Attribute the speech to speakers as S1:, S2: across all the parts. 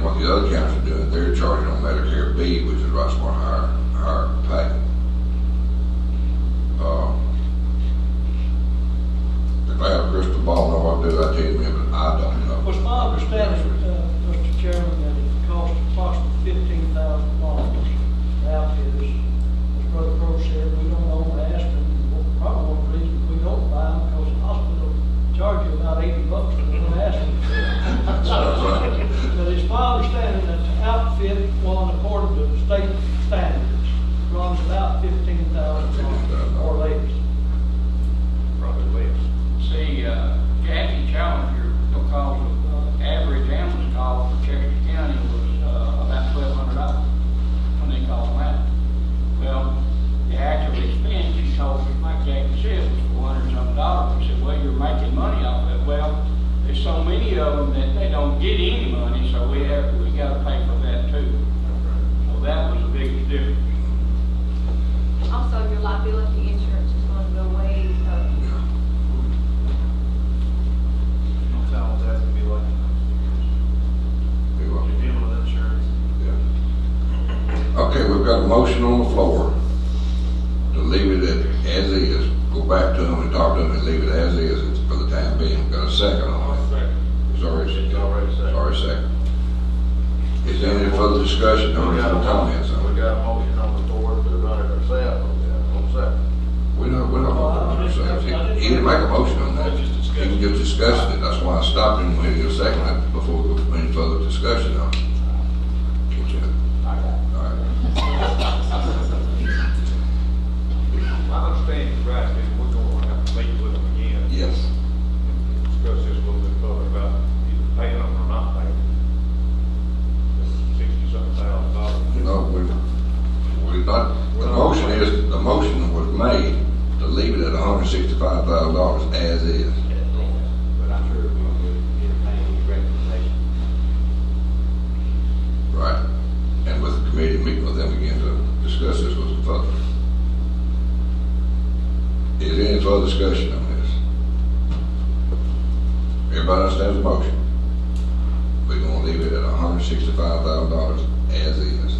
S1: county doing, they're charging on Medicare B, which is a much more higher, higher pay. Uh, If I have a crystal ball, know what I do, I tell you, but I don't know.
S2: Was my understanding, uh, Mr. Chairman, that it cost approximately fifteen thousand dollars to outfit this. As Brother Crowe said, we don't own the Aston, probably one reason we don't buy them, because the hospital charge you about eighty bucks for one Aston.
S1: Sounds right.
S2: But it's my understanding that the outfit one according to the state standards runs about fifteen thousand dollars or less.
S3: Probably less.
S4: See, uh, Jackie Challenger, because of uh, average ambulance call for Cherokee County was uh, about twelve hundred dollars when they called them out. Well, the actual expense, she told me, like Jackie said, was four hundred and something dollars. I said, well, you're making money off it. Well, there's so many of them that they don't get any money, so we have, we gotta pay for that too. So that was the biggest difference.
S5: Also, your liability insurance is going to go way up.
S3: Sometimes that's gonna be like,
S1: They will.
S3: you're dealing with insurance.
S1: Yeah. Okay, we've got a motion on the floor to leave it at, as is, go back to them and talk to them and leave it as is for the time being. Got a second on it. It's already.
S3: It's already second.
S1: Sorry, second. Is there any further discussion or
S6: We
S1: any
S6: got a
S1: other comments?
S6: motion,
S1: on
S6: we
S1: it?
S6: got a motion on the board to run it ourselves, we got one second.
S1: We don't, we don't.
S2: Well, I just-
S1: so,
S2: I just-
S1: He he didn't make a motion on that.
S3: I just discussed it.
S1: He just discussed it. That's why I stopped him when he was second it before we went any further discussion on it. Which, uh, all right.
S3: My understanding is right, is we're gonna have to meet with them again.
S1: Yes.
S3: and Discuss this a little bit further about either paying them or not paying them. Sixty something thousand dollars.
S1: No, we, we not, the motion is, the motion was made to leave it at hundred and sixty-five thousand dollars as is.
S3: But I'm sure we will entertain any recommendation.
S1: Right. And with the committee, meeting with them again to discuss this with the public. Is there any further discussion on this? Everybody understands the motion? We're gonna leave it at hundred and sixty-five thousand dollars as is.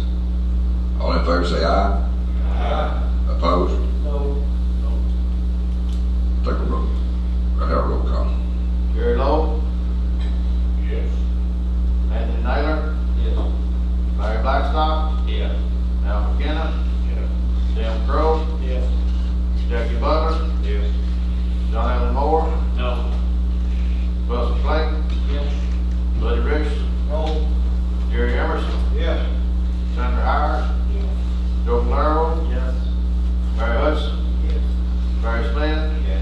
S1: All in favor, say aye.
S3: Uh,
S1: Aye. Opposed?
S2: No,
S1: Take a roll. I have a roll call.
S6: Gary Lowe,
S3: Yes.
S6: Anthony Naylor,
S3: Yes.
S6: Larry Blackstock,
S3: Yes.
S6: Al McKenna,
S3: Yes.
S6: Sam Crow,
S3: Yes.
S6: Jackie Butler,
S3: Yes.
S6: John Allen Moore,
S3: No.
S6: Buster Flank,
S3: Yes.
S6: Buddy Richardson,
S2: no,
S6: Jerry Emerson,
S3: Yes.
S6: Sandra Hyer,
S5: Yes.
S6: Joe Valero,
S3: Yes.
S6: Larry Hudson,
S3: Yes.
S6: Barry Smith,
S3: Yes.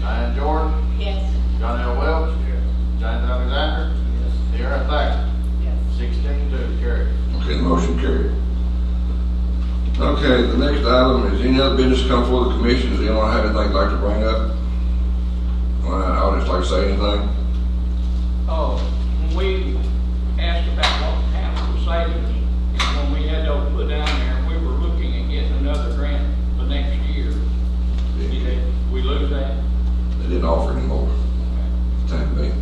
S6: Diane Jordan,
S5: Yes.
S6: John L. Welch, James Alexander,
S3: Yes.
S6: Deanna Thacker,
S5: Yes.
S6: sixteen to carry.
S1: Okay, the motion carried. Okay, the next item is any other business come before the commission, does anyone have anything they'd like to bring up? Or I audience like to say anything?
S4: Oh, when we asked about what happened with savings, and when we had those put down there, we were looking at getting another grant for next year. Did we lose that?
S1: They didn't offer anymore, time being.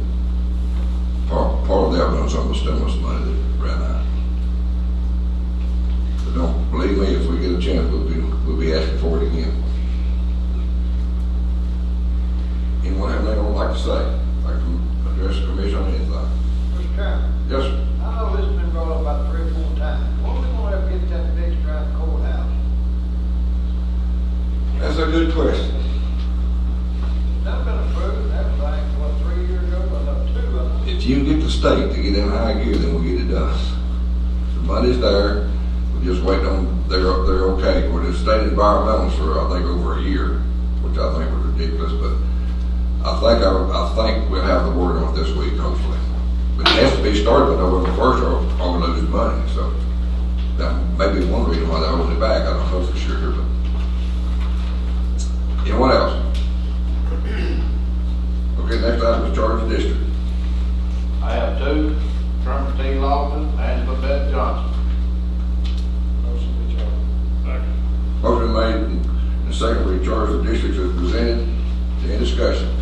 S1: Part, part of that was on the stimulus money that ran out. But don't, believe me, if we get a chance, we'll be, we'll be asking for it again. Anyone have anything they'd like to say, like to address the commission on anything?
S2: Mr. Chairman.
S1: Yes, sir.
S2: I know this has been brought up about three or four times. When are we gonna ever get that fixed around the courthouse?
S1: That's a good question.
S2: That's been approved, that was like, what, three years ago, or no, two, of them.
S1: If you get the state to get in high gear, then we'll get it done. The money's there, we're just waiting on, they're, they're okay. We're just state environmentalists for, I think, over a year, which I think was ridiculous, but I think, I, I think we'll have the word on it this week, hopefully. But it has to be started by November first, or or we lose money, so that may be one reason why they're holding it back, I don't know for sure, but. Anyone else? Okay, next item is charge of district.
S6: I have two, Kermit T. Lawson, Angela Beth Johnson.
S2: Motion to adjourn.
S1: Motion made and secondly, charge the districts as presented. Any discussion?